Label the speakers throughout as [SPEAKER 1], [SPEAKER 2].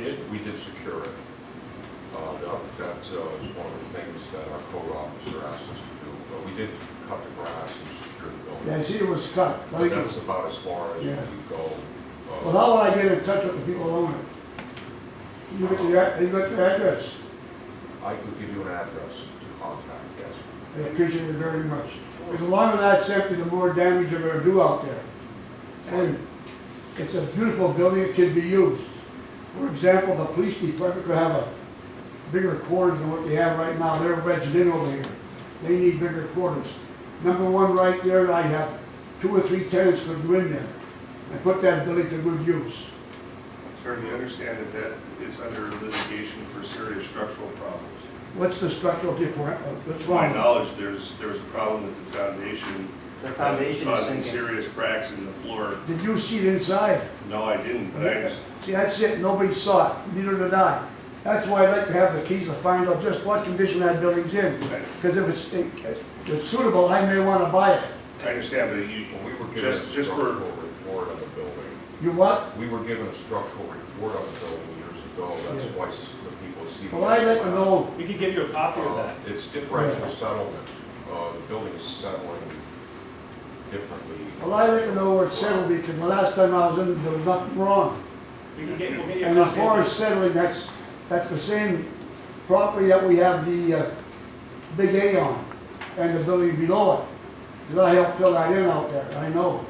[SPEAKER 1] Uh, things that our code officer asked us to do, but we did cut the grass and secure the
[SPEAKER 2] Yeah, I
[SPEAKER 1] building.
[SPEAKER 2] see it was cut.
[SPEAKER 1] But that's about as far as we
[SPEAKER 2] Yeah.
[SPEAKER 1] could go. uh,
[SPEAKER 2] Well, how would I get in touch with the people who own it? You got your, you got your address.
[SPEAKER 1] I could give you an address to contact, yes.
[SPEAKER 2] I appreciate it very much. Because the longer that septic, the more damage you're gonna do out there. And it's a beautiful building, it can be used. For example, the police department could have a bigger quarters than what they have right now, they're wedged in over here. They need bigger quarters. Number one, right there, I have two or three tenants could go in there and put that building to good use.
[SPEAKER 3] Attorney, I understand that that is under litigation for serious structural problems.
[SPEAKER 2] What's the structural difference, what's
[SPEAKER 3] To my
[SPEAKER 2] wrong?
[SPEAKER 3] knowledge, there's, there's a problem with the foundation.
[SPEAKER 4] The foundation
[SPEAKER 3] uh,
[SPEAKER 4] is
[SPEAKER 3] Causing
[SPEAKER 4] sinking.
[SPEAKER 3] serious cracks in the floor.
[SPEAKER 2] Did you see it inside?
[SPEAKER 3] No, I didn't, but I, just-
[SPEAKER 2] See, that's it, nobody saw it, neither did I. That's why I'd like to have the keys to find out just what condition that building's in.
[SPEAKER 3] Right.
[SPEAKER 2] Because if it's, if it's suitable, I may want to buy it.
[SPEAKER 3] I understand, but you,
[SPEAKER 1] Well, we were given a
[SPEAKER 3] just, just
[SPEAKER 1] structural
[SPEAKER 3] for,
[SPEAKER 1] report on the building.
[SPEAKER 2] You what?
[SPEAKER 1] We were given a structural report on the building years ago, that's
[SPEAKER 2] Yeah.
[SPEAKER 1] why s- the people see. Uh,
[SPEAKER 2] Well, I'd like to know,
[SPEAKER 5] We could give you a copy of that.
[SPEAKER 1] It's differential settlement, uh, the building is settling differently.
[SPEAKER 2] well, I'd like to know where it's settled because the last time I was in, there was nothing wrong.
[SPEAKER 5] We can get, we'll get you a
[SPEAKER 2] And as
[SPEAKER 5] copy
[SPEAKER 2] far
[SPEAKER 5] of
[SPEAKER 2] as
[SPEAKER 5] that.
[SPEAKER 2] settling, that's, that's the same property that we have the, uh, big A on and the building below it. Because I helped fill that in out there, I know.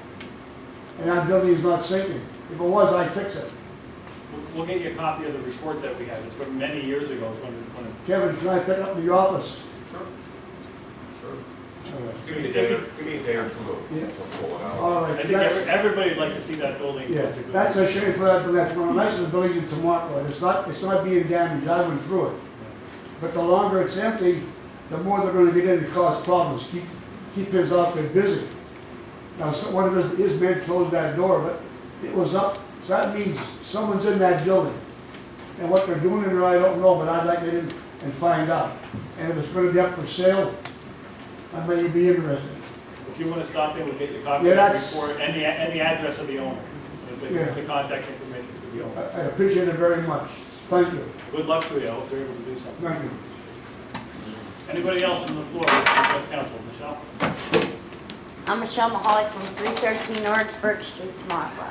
[SPEAKER 2] And that building is not sinking. If it was, I'd fix it.
[SPEAKER 5] We'll- We'll get you a copy of the report that we have. It's from many years ago. It's when, when,
[SPEAKER 2] Kevin, can I pick up in your office?
[SPEAKER 1] Sure. Sure. Just
[SPEAKER 2] All
[SPEAKER 1] give me a day, or- give me a day or two to-
[SPEAKER 2] Yes.
[SPEAKER 1] to pull it out.
[SPEAKER 2] right,
[SPEAKER 5] I think every-
[SPEAKER 2] that's,
[SPEAKER 5] everybody would like to see that building.
[SPEAKER 2] yeah, that's a shame for that, but that's one of the nicest buildings in Tomaco, and it's not, it's not being damaged, I went through it. But the longer it's empty, the more they're gonna get in and cause problems, keep, keep his outfit busy. Now, so- one of his, his men closed that door, but it was up, so that means someone's in that building. And what they're doing in there, I don't know, but I'd like to get in and find out. And if it's gonna be up for sale, I may be interested.
[SPEAKER 5] If you want to stop in, we'll get you a copy
[SPEAKER 2] Yeah,
[SPEAKER 5] of the
[SPEAKER 2] that's-
[SPEAKER 5] report and the, and the address of the owner. the-
[SPEAKER 2] Yeah.
[SPEAKER 5] The, the contact information for the
[SPEAKER 2] I
[SPEAKER 5] owner.
[SPEAKER 2] I appreciate it very much. Thank you,
[SPEAKER 5] Good luck to you. I hope you're able to do something.
[SPEAKER 2] thank you.
[SPEAKER 5] Anybody else on the floor, That's council, Michelle?
[SPEAKER 6] I'm Michelle Mahalik from 313 Norrisburg Street, Tamaqua.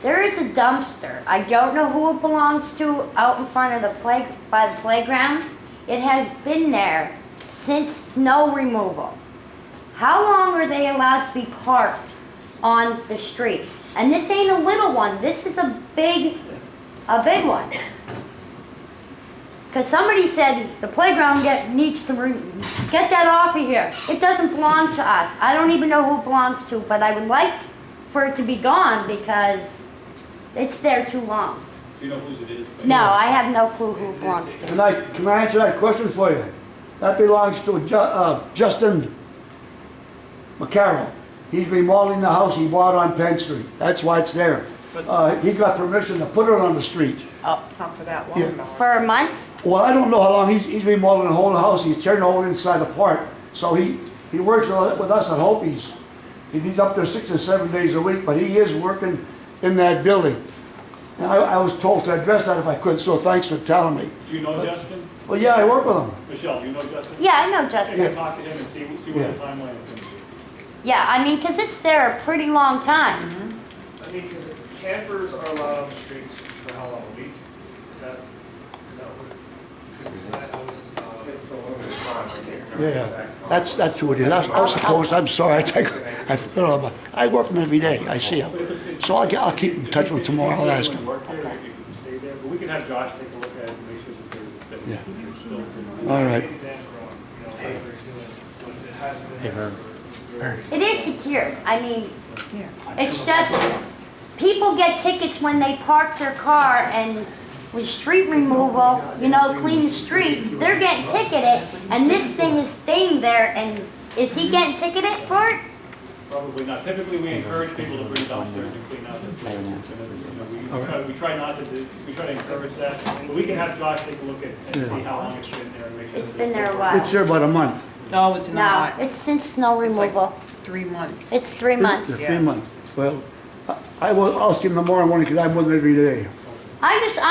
[SPEAKER 6] There is a dumpster, I don't know who it belongs to, out in front of the play, by the playground. It has been there since snow removal. How long are they allowed to be parked on the street? And this ain't a little one, this is a big, a big one. Because somebody said the playground get, needs to, re- get that off of here. It doesn't belong to us. I don't even know who it belongs to, but I would like for it to be gone because it's there too long.
[SPEAKER 5] Do you know whose it is?
[SPEAKER 6] No, I have no clue who it belongs to.
[SPEAKER 2] Can I, can I answer that question for you? That belongs to Ju- uh, Justin McCarroll. He's remodeling the house he bought on Penn Street. That's why it's there. Uh, He got permission to put it on the street.
[SPEAKER 7] Not for that
[SPEAKER 2] Yeah.
[SPEAKER 7] long, though.
[SPEAKER 6] For months?
[SPEAKER 2] Well, I don't know how long, he's, he's remodeling the whole house, he's tearing the whole inside apart. So he, he works with with us at Hopies. He- He's up there six or seven days a week, but he is working in that building. And I, I was told to address that if I could, so thanks for telling me.
[SPEAKER 5] Do you know Justin?
[SPEAKER 2] Well, yeah, I work with him.
[SPEAKER 5] Michelle, do you know Justin?
[SPEAKER 6] Yeah, I know
[SPEAKER 5] Take a
[SPEAKER 6] Justin.
[SPEAKER 5] copy of him and see, see what his
[SPEAKER 2] Yeah.
[SPEAKER 5] timeline is going to be.
[SPEAKER 6] Yeah, I mean, because it's there a pretty long time.
[SPEAKER 8] I mean, because campers are allowed on the streets for how long, a week? Is that, is that what? Because I I was, uh,
[SPEAKER 3] it's a little bit of time.
[SPEAKER 2] Yeah, that's, that's who it is. I I suppose, I'm sorry, I take, I, you know, I work with him every day, I see him. So I'll, get- I'll keep in touch with him tomorrow, I'll ask him.
[SPEAKER 5] Work there, you can stay there, but we can have Josh take a look at it and make sure that they're,
[SPEAKER 2] Yeah.
[SPEAKER 5] that it's still.
[SPEAKER 2] All right.
[SPEAKER 8] Dan Perron, you know, whatever he's doing, but it has been.
[SPEAKER 2] Hey, Herb.
[SPEAKER 6] It is secure. I mean,
[SPEAKER 7] Yeah.
[SPEAKER 6] It's just, people get tickets when they park their car and with street removal, you know, clean the streets, they're getting ticketed, and this thing is staying there, and is he getting ticketed for it?
[SPEAKER 5] Probably not. Typically, we encourage people to bring dumpsters and clean out the places. and it's, you know, we try- We try not to do, we try to encourage that, but we can have Josh take a look at, and see how long it's been there and make sure.
[SPEAKER 6] It's
[SPEAKER 5] that
[SPEAKER 6] been there a
[SPEAKER 2] It's
[SPEAKER 6] while.
[SPEAKER 2] here about a month,
[SPEAKER 7] No, it's
[SPEAKER 6] No,
[SPEAKER 7] not.
[SPEAKER 6] it's since snow
[SPEAKER 7] It's like
[SPEAKER 6] removal.
[SPEAKER 7] Three months.
[SPEAKER 6] It's three
[SPEAKER 2] Yeah,
[SPEAKER 6] months.
[SPEAKER 2] three months. Well, I I will, I'll see him tomorrow morning, because I'm with him every day.
[SPEAKER 6] I just,